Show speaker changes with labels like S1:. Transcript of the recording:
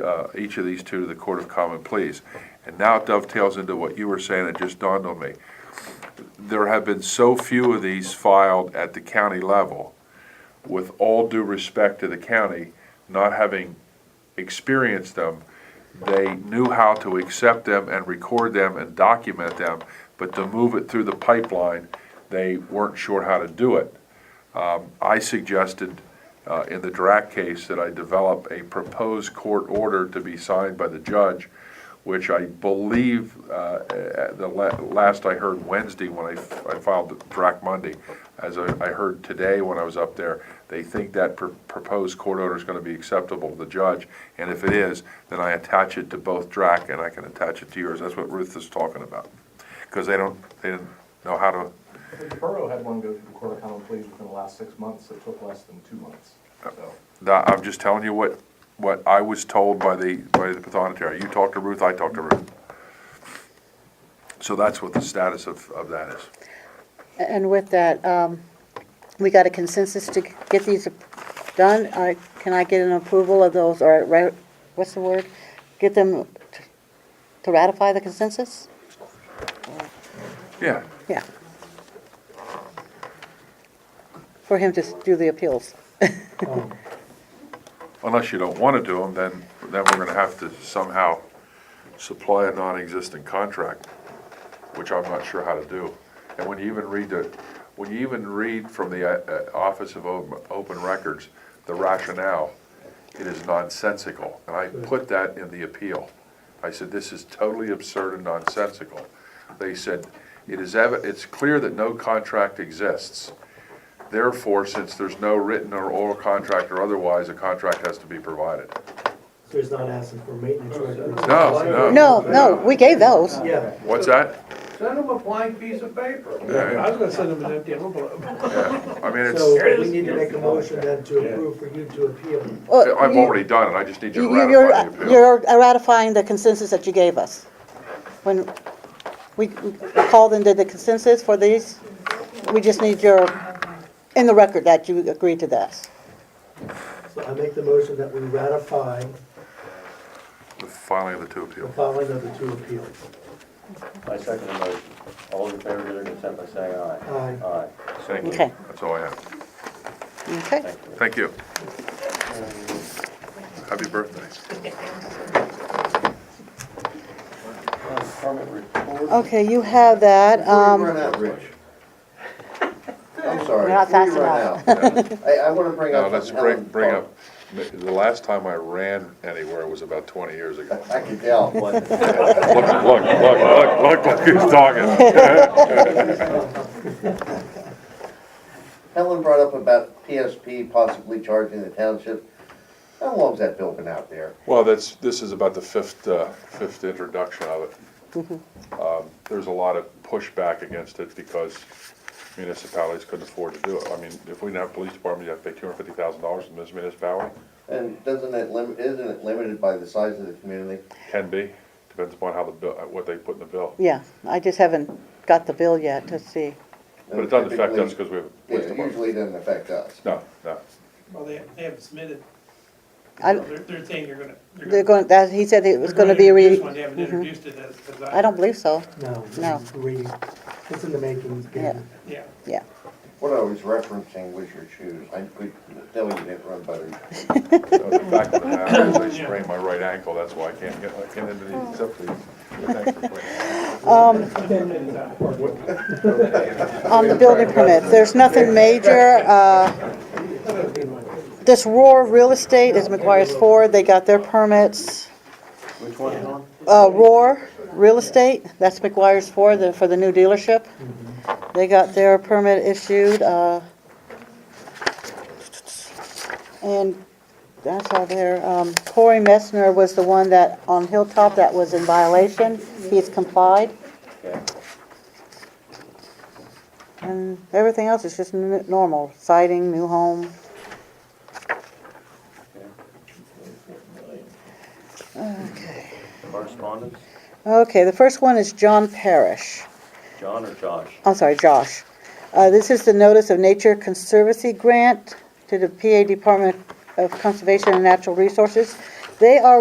S1: uh, each of these two to the Court of Common Pleas. And now it dovetails into what you were saying, it just dawned on me. There have been so few of these filed at the county level, with all due respect to the county, not having experienced them, they knew how to accept them and record them and document them, but to move it through the pipeline, they weren't sure how to do it. I suggested uh, in the Drac case that I develop a proposed court order to be signed by the judge, which I believe, uh, at the la- last I heard Wednesday when I f- I filed the Drac Monday, as I I heard today when I was up there, they think that pr- proposed court order is going to be acceptable to the judge, and if it is, then I attach it to both Drac and I can attach it to yours. That's what Ruth is talking about, because they don't, they didn't know how to,
S2: I think the borough had one go to the Court of Common Pleas within the last six months, it took less than two months, so.
S1: That- I'm just telling you what, what I was told by the, by the pathonetary. You talked to Ruth, I talked to Ruth. So that's what the status of, of that is.
S3: And with that, um, we got a consensus to get these done. I- Can I get an approval of those, or ra- what's the word? Get them t- to ratify the consensus?
S1: Yeah,
S3: Yeah. For him to s- do the appeals.
S1: unless you don't want to do them, then, then we're gonna have to somehow supply a non-existent contract, which I'm not sure how to do. And when you even read the, when you even read from the uh, uh, Office of Open Open Records, the rationale, it is nonsensical. And I put that in the appeal. I said, this is totally absurd and nonsensical. They said, it is evi, it's clear that no contract exists. Therefore, since there's no written or oral contract or otherwise, a contract has to be provided.
S4: So he's not asking for maintenance records?
S1: No, no.
S3: No, no, we gave those.
S4: Yeah.
S1: What's that?
S5: Send them a blank piece of paper.
S1: Yeah,
S6: was gonna send him an empty envelope.
S1: I mean, it's,
S4: So we need to make a motion then to approve for you to appeal.
S3: Uh,
S1: I've
S3: you-
S1: already done it, I just need you to
S3: you- You're
S1: ratify the appeal.
S3: you're ratifying the consensus that you gave us. When we we called and did the consensus for these, we just need your, in the record that you agreed to this.
S4: So I make the motion that we ratify
S1: The filing of the two
S4: the
S1: appeals.
S4: filing of the two appeals.
S7: I second the motion. All in favor, give their consent by saying aye.
S4: Aye.
S7: Aye.
S1: Thank you,
S3: Okay.
S1: that's all I have.
S3: Okay?
S7: Thank you.
S1: Thank you. Happy birthday.
S7: Uh, Department report.
S3: Okay, you have that.
S5: Before you
S3: um,
S5: run out, Rich. I'm sorry.
S3: We're not
S5: before you
S3: fast
S5: run
S3: enough.
S5: out, I, I wanna bring
S1: Now,
S5: up.
S1: let's
S5: something
S1: bring,
S5: Ellen
S1: bring
S5: thought.
S1: up, the last time I ran anywhere was about twenty years ago.
S5: I can tell.
S1: Look, look, look, look, look who's talking.
S5: Helen brought up about PSP possibly charging the township. How long's that bill been out there?
S1: Well, that's, this is about the fifth, uh, fifth introduction of it.
S5: Mm-hmm.
S1: Um, There's a lot of pushback against it because municipalities couldn't afford to do it. I mean, if we didn't have a police department, you have to pay two hundred fifty thousand dollars to this municipality.
S5: And doesn't it lim, isn't it limited by the size of the community?
S1: Can be, depends upon how the bill, uh, what they put in the bill.
S3: Yeah, I just haven't got the bill yet to see.
S1: But it doesn't affect us
S5: Typically-
S1: because we have a police
S5: Yeah, it
S1: department.
S5: usually doesn't affect us.
S1: No, no.
S6: Well, they, they haven't submitted,
S3: I-
S6: they're, they're saying they're gonna.
S3: They're going, that, he said it was
S6: they're
S3: going to be
S6: introduce
S3: re, Mm-hmm.
S6: one. They haven't introduced it as, as I.
S3: I don't believe so.
S4: No.
S3: No.
S4: it's reading. It's in the making.
S3: Yeah.
S6: Yeah.
S3: Yeah.
S5: What I was referencing was your shoes. I could tell you didn't run better.
S1: No, The fact of the matter is I sprained my right ankle, that's why I can't get, I can't into these except for these. Thanks for pointing.
S6: Ten minutes out.
S3: on the building permits, there's nothing major. uh, This Roar Real Estate is McGuire's Ford, they got their permits.
S7: Which one is on?
S3: Uh, Roar Real Estate, that's McGuire's Ford, the- for the new dealership. They got their permit issued. uh, And that's all there. Um, Corey Messner was the one that, on Hilltop, that was in violation. He's complied.
S7: Okay.
S3: And Uh, everything else is just n- normal, siding, new home. Okay.
S7: Correspondence?
S3: Okay, the first one is John Parrish.
S7: John or Josh?
S3: I'm sorry, Josh. Uh, this is the Notice of Nature Conservancy Grant to the PA Department of Conservation and Natural Resources. They are